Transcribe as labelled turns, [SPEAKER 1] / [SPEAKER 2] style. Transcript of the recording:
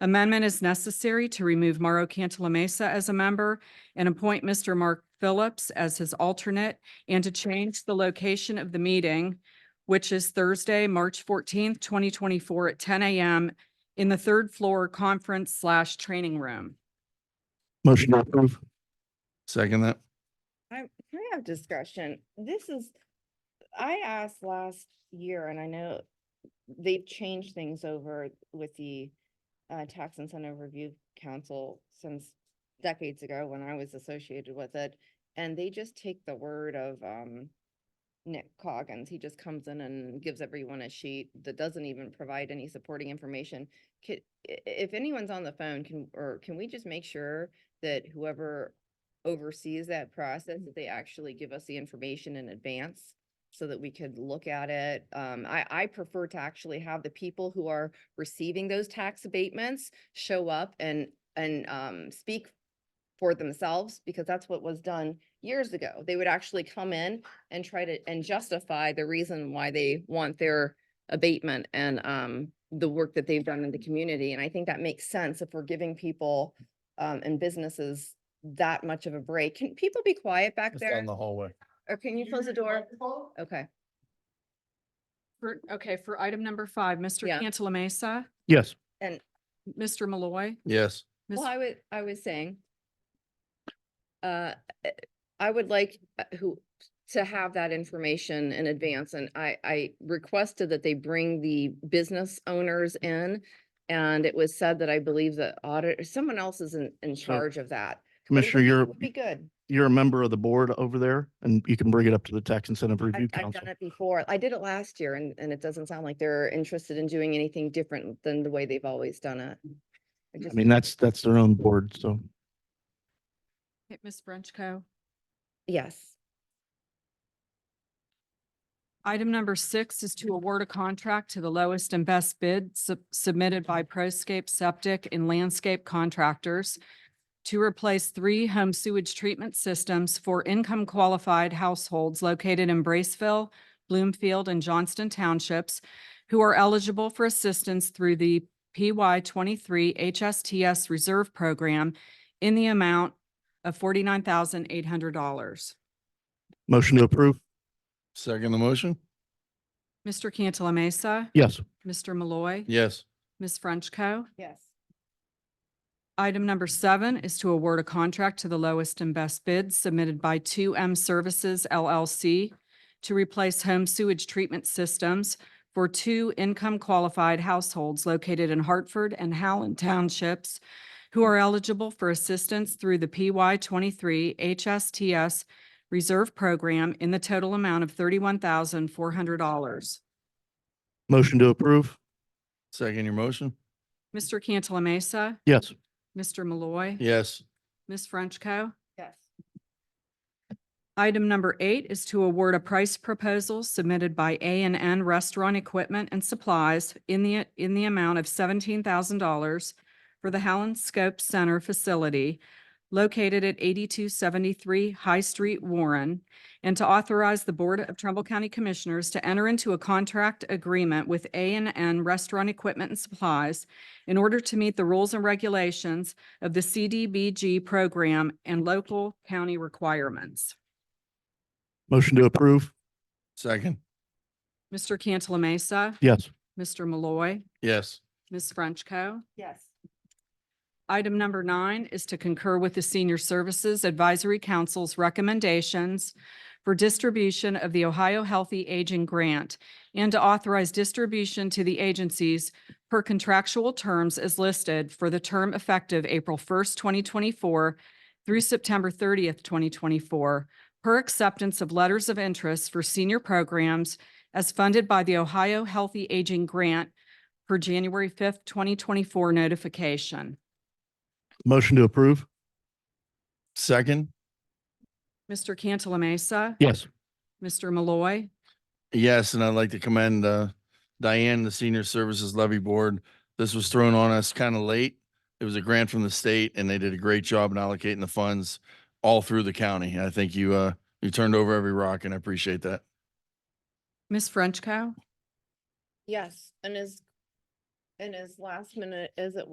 [SPEAKER 1] Amendment is necessary to remove Mauro Cantala Mesa as a member and appoint Mr. Mark Phillips as his alternate and to change the location of the meeting, which is Thursday, March fourteenth, twenty twenty-four at ten AM in the third floor conference slash training room.
[SPEAKER 2] Motion to approve. Second that.
[SPEAKER 3] I, can I have discussion? This is, I asked last year and I know they've changed things over with the uh, Tax Incentive Review Council since decades ago when I was associated with it. And they just take the word of um Nick Coggins. He just comes in and gives everyone a sheet that doesn't even provide any supporting information. Could, i- i- if anyone's on the phone, can, or can we just make sure that whoever oversees that process, that they actually give us the information in advance so that we could look at it. Um, I, I prefer to actually have the people who are receiving those tax abatements show up and, and, um, speak for themselves, because that's what was done years ago. They would actually come in and try to, and justify the reason why they want their abatement and, um, the work that they've done in the community. And I think that makes sense if we're giving people, um, and businesses that much of a break. Can people be quiet back
[SPEAKER 4] It's down
[SPEAKER 3] there?
[SPEAKER 4] the hallway.
[SPEAKER 3] Or can you close the door? Okay.
[SPEAKER 1] For, okay, for item number five, Mr.
[SPEAKER 3] Yeah.
[SPEAKER 1] Cantala Mesa,
[SPEAKER 2] Yes.
[SPEAKER 1] Mr. Malloy.
[SPEAKER 2] Yes.
[SPEAKER 1] Ms.
[SPEAKER 3] Well, I was, I was saying, uh, eh, I would like uh, who, to have that information in advance, and I, I requested that they bring the business owners in. And it was said that I believe the audit, someone else is in, in charge of that. But it
[SPEAKER 2] Commissioner,
[SPEAKER 3] would- it
[SPEAKER 2] you're,
[SPEAKER 3] would Be good.
[SPEAKER 2] you're a member of the board over there and you can bring it up to the Tax Incentive
[SPEAKER 3] I've,
[SPEAKER 2] Review
[SPEAKER 3] I've
[SPEAKER 2] Council.
[SPEAKER 3] done it before. I did it last year, and, and it doesn't sound like they're interested in doing anything different than the way they've always done it. I
[SPEAKER 2] I
[SPEAKER 3] just-
[SPEAKER 2] mean, that's, that's their own board, so.
[SPEAKER 1] Okay, Ms. Frenchco.
[SPEAKER 3] Yes.
[SPEAKER 1] Item number six is to award a contract to the lowest and best bid sub- submitted by Proscape Septic and Landscape Contractors to replace three home sewage treatment systems for income qualified households located in Braceville, Bloomfield, and Johnston Townships who are eligible for assistance through the PY twenty-three HSTS Reserve Program in the amount of forty-nine thousand eight hundred dollars.
[SPEAKER 2] Motion to approve.
[SPEAKER 4] Second the motion?
[SPEAKER 1] Mr. Cantala Mesa,
[SPEAKER 2] Yes.
[SPEAKER 1] Mr. Malloy.
[SPEAKER 4] Yes.
[SPEAKER 1] Ms. Frenchco.
[SPEAKER 3] Yes.
[SPEAKER 1] Item number seven is to award a contract to the lowest and best bid submitted by Two M Services LLC to replace home sewage treatment systems for two income qualified households located in Hartford and Howland Townships who are eligible for assistance through the PY twenty-three HSTS Reserve Program in the total amount of thirty-one thousand four hundred dollars.
[SPEAKER 2] Motion to approve.
[SPEAKER 4] Second your motion?
[SPEAKER 1] Mr. Cantala Mesa,
[SPEAKER 2] Yes.
[SPEAKER 1] Mr. Malloy.
[SPEAKER 4] Yes.
[SPEAKER 1] Ms. Frenchco.
[SPEAKER 3] Yes.
[SPEAKER 1] Item number eight is to award a price proposal submitted by A and N Restaurant Equipment and Supplies in the, in the amount of seventeen thousand dollars for the Howland Scope Center facility located at eighty-two seventy-three High Street, Warren, and to authorize the Board of Trumbull County Commissioners to enter into a contract agreement with A and N Restaurant Equipment and Supplies in order to meet the rules and regulations of the CDBG program and local county requirements.
[SPEAKER 2] Motion to approve.
[SPEAKER 4] Second?
[SPEAKER 1] Mr. Cantala Mesa,
[SPEAKER 2] Yes.
[SPEAKER 1] Mr. Malloy,
[SPEAKER 4] Yes.
[SPEAKER 1] Ms. Frenchco.
[SPEAKER 3] Yes.
[SPEAKER 1] Item number nine is to concur with the Senior Services Advisory Council's recommendations for distribution of the Ohio Healthy Aging Grant and to authorize distribution to the agencies per contractual terms as listed for the term effective April first, twenty twenty-four through September thirtieth, twenty twenty-four, per acceptance of letters of interest for senior programs as funded by the Ohio Healthy Aging Grant per January fifth, twenty twenty-four notification.
[SPEAKER 2] Motion to approve.
[SPEAKER 4] Second?
[SPEAKER 1] Mr. Cantala Mesa.
[SPEAKER 2] Yes.
[SPEAKER 1] Mr. Malloy.
[SPEAKER 4] Yes, and I'd like to commend uh, Diane, the Senior Services Levy Board. This was thrown on us kind of late. It was a grant from the state and they did a great job in allocating the funds all through the county. I think you, uh, you turned over every rock and I appreciate that.
[SPEAKER 1] Ms. Frenchco.
[SPEAKER 3] Yes, and as, and as last minute as it